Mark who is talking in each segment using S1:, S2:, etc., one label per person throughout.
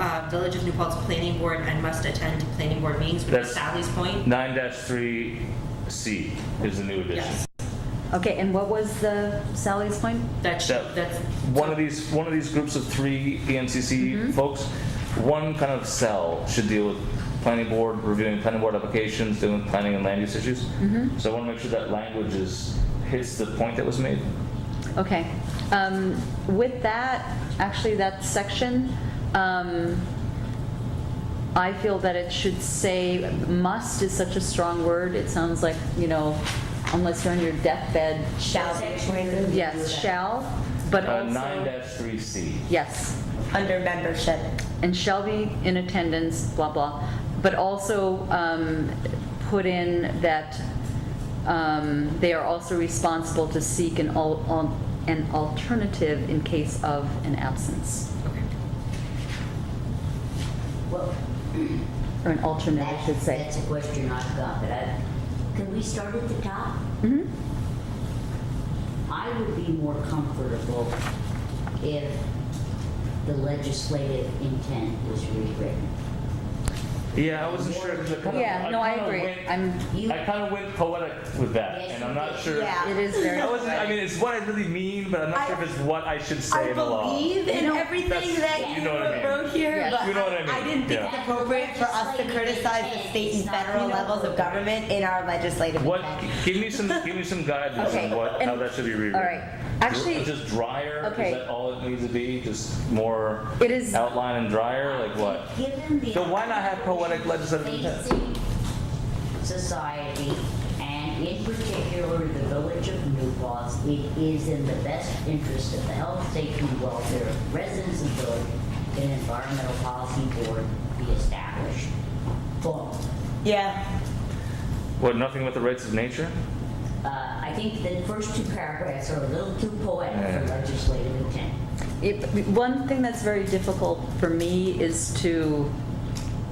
S1: uh, Village of New Paltz Planning Board and must attend planning board meetings, which is
S2: That's-
S1: Sally's point.
S2: Nine three C is the new edition.
S1: Yes,
S3: Okay, and what was the Sally's point?
S1: that's,
S2: That-
S1: that's,
S2: One of these, one of these groups of three E
S3: Mm-hmm.
S2: ENCC folks, one kind of cell should deal with planning board, reviewing planning board applications, doing planning and land use issues.
S3: Mm-hmm.
S2: So I want to make sure that language is, hits the point that was made.
S3: Okay, um, with that, actually, that section, um, I feel that it should say, must is such a strong word, it sounds like, you know, unless you're on your deathbed,
S4: Shall sanctuary.
S3: yes, shall, but
S2: Uh, nine
S3: also,
S2: three C.
S3: yes.
S4: Under membership.
S3: and shall be in attendance, blah, blah. But also um, put in that um, they are also responsible to seek an, al- al- an alternative in case of an absence,
S1: okay.
S5: Well,
S3: or an alternate, I should
S5: that's,
S3: say.
S5: that's a question I've got, but I, can we start at the top?
S3: Mhm.
S5: I would be more comfortable if the legislative intent was rewritten.
S2: Yeah, I wasn't sure. 'cause I kinda-
S3: Yeah, no, I
S2: kinda
S3: agree.
S2: went-
S3: I'm,
S5: You-
S2: I kind of went poetic with that,
S5: Yes,
S2: and I'm
S5: you
S2: not
S5: did.
S2: sure.
S4: Yeah.
S3: it is very,
S2: I wasn't. I mean, it's what I really mean, but I'm not
S4: I-
S2: sure if it's what I should say
S4: I
S2: in the law.
S4: believe in everything
S2: that's-
S4: that
S2: you
S4: you
S2: know what I mean.
S4: wrote here,
S3: Yes.
S4: but
S2: You know what I
S4: I
S2: mean,
S4: didn't think it's
S2: yeah.
S4: appropriate for us to criticize the state and federal levels of government in our legislative.
S2: What?
S4: intent.
S2: Give me some. give me some guidance
S3: Okay,
S2: on what how
S3: and-
S2: that should be rewritten.
S3: all right. Actually-
S2: just drier.
S3: okay.
S2: Is that all it needs to be? Just more
S3: It is-
S2: outline and drier. Like what?
S5: Given the.
S2: So why not have poetic legislative intent?
S5: facing Society, and in particular, the village of New Paltz, it is in the best interest of the health, safety, and welfare of residents of the village, that an environmental policy board be established. Boom.
S4: Yeah,
S2: What? Nothing about the rights of nature?
S5: Uh, I think the first two paragraphs are a little too poetic for
S2: Yeah.
S5: legislative intent.
S3: it- one thing that's very difficult for me is to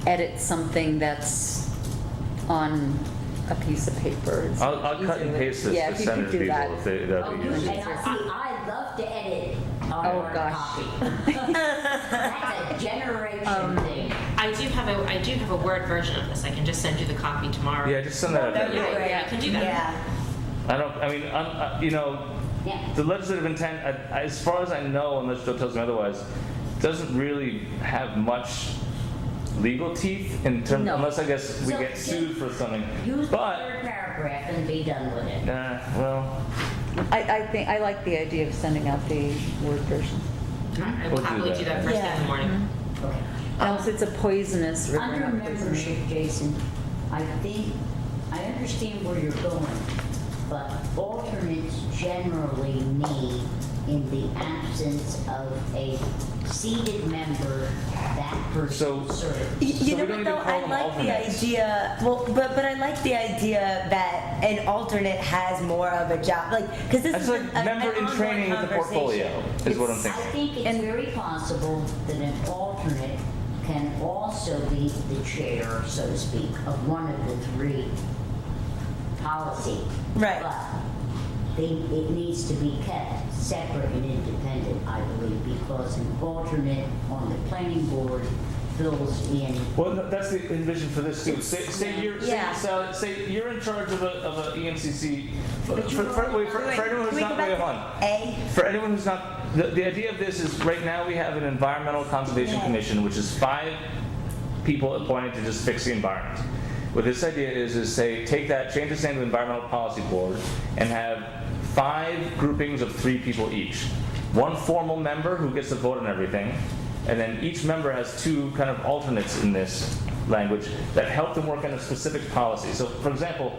S3: edit something that's on a piece of paper. It's
S2: I'll, I'll cut and
S3: easier.
S2: paste this
S3: Yeah,
S2: to
S3: if you
S2: send
S3: could
S2: it to
S3: do
S2: people
S3: that.
S2: if they, that'd be
S5: Oh,
S2: easy.
S5: And I, see, I love to edit our
S3: Oh,
S5: our
S3: gosh.
S5: copy. That's a generation thing.
S1: I do have a, I do have a Word version of this, I can just send you the copy tomorrow.
S2: Yeah, just send that.
S4: That'd
S2: out
S4: be
S2: there.
S4: great.
S1: Yeah, I can do that.
S4: yeah.
S2: I don't. I mean, I'm, I, you know,
S5: Yeah.
S2: the legislative intent, I- as far as I know, unless Joe tells me otherwise, doesn't really have much legal teeth in terms,
S3: No.
S2: unless I guess we
S5: So,
S2: get sued for something.
S5: Use the
S2: But,
S5: third paragraph and be done with it.
S2: uh, well,
S3: I, I think, I like the idea of sending out the Word version.
S1: I I
S2: We'll
S1: will
S2: do
S1: happily do that
S2: that.
S1: first thing in the
S4: Yeah.
S3: Mm-hmm.
S1: morning.
S5: Okay.
S2: Ah.
S3: And also, it's a poisonous river.
S5: Under
S3: not poisonous.
S5: membership, Jason, I think, I understand where you're going, but alternates generally need, in the absence of a seated member, that
S2: So-
S5: person serves.
S4: Y- You
S2: So
S4: know
S2: we don't
S4: what
S2: even
S4: though,
S2: call
S4: I
S2: them
S4: like the
S2: alternates.
S4: idea, well, but, but I like the idea that an alternate has more of a job, like, because this
S2: that's
S4: is.
S2: like
S4: an-
S2: member
S4: an
S2: in training with
S4: ongoing
S2: the portfolio,
S4: conversation.
S2: is what I'm
S5: I
S2: thinking.
S5: think it's
S3: And-
S5: very possible that an alternate can also be the chair, so to speak, of one of the three policy.
S4: Right.
S5: But they, it needs to be kept separate and independent, I believe, because an alternate on the planning board fills in.
S2: Well, no, that's the envision for this too. Say, say you're, say,
S4: Yeah.
S2: so- say you're in charge of a, of a E ENCC. For,
S5: But you
S2: for, for- wait, for,
S4: Wait,
S2: for anyone
S4: can
S2: who's
S4: we go
S2: not,
S4: back
S2: wait,
S4: to
S2: hold on.
S4: A,
S2: For anyone who's not, the, the idea of this is right now we have an environmental conservation
S4: Yeah.
S2: commission, which is five people appointed to just fix the environment. What this idea is, is say, take that, change its name to environmental policy board, and have five groupings of three people each. One formal member who gets to vote on everything, and then each member has two kind of alternates in this language that help them work on a specific policy. So, for example,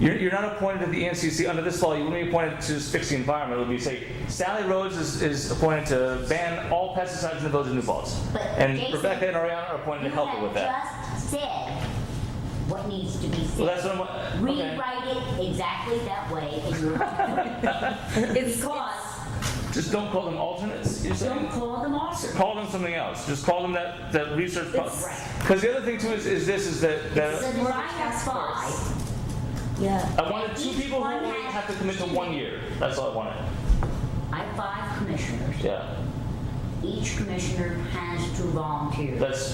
S2: you're, you're not appointed to the ENCC under this law. You wouldn't be appointed to just fix the environment. It would be say Sally Rhodes is, is appointed to ban all pesticides in the village of New Falls,
S5: But
S2: and
S5: Jason-
S2: Rebecca and Ariana are appointed to help her with that.
S5: You have just said what needs to be said.
S2: Well, that's what I'm. Okay.
S5: Rewrite it exactly that way in your
S3: It's,
S5: Because
S2: Just don't call them alternates. You're saying.
S5: don't call them alternates.
S2: Call them something else. Just call them that, that research.
S3: It's-
S2: Because the other thing too is, is this is that, that
S5: It's a task force.
S4: yeah,
S2: I wanted two
S5: Each
S2: people who
S5: one
S2: only
S5: has
S2: have to commit to one year. That's all I wanted.
S5: I have five commissioners.
S2: Yeah.
S5: Each commissioner has two volunteers.
S2: That's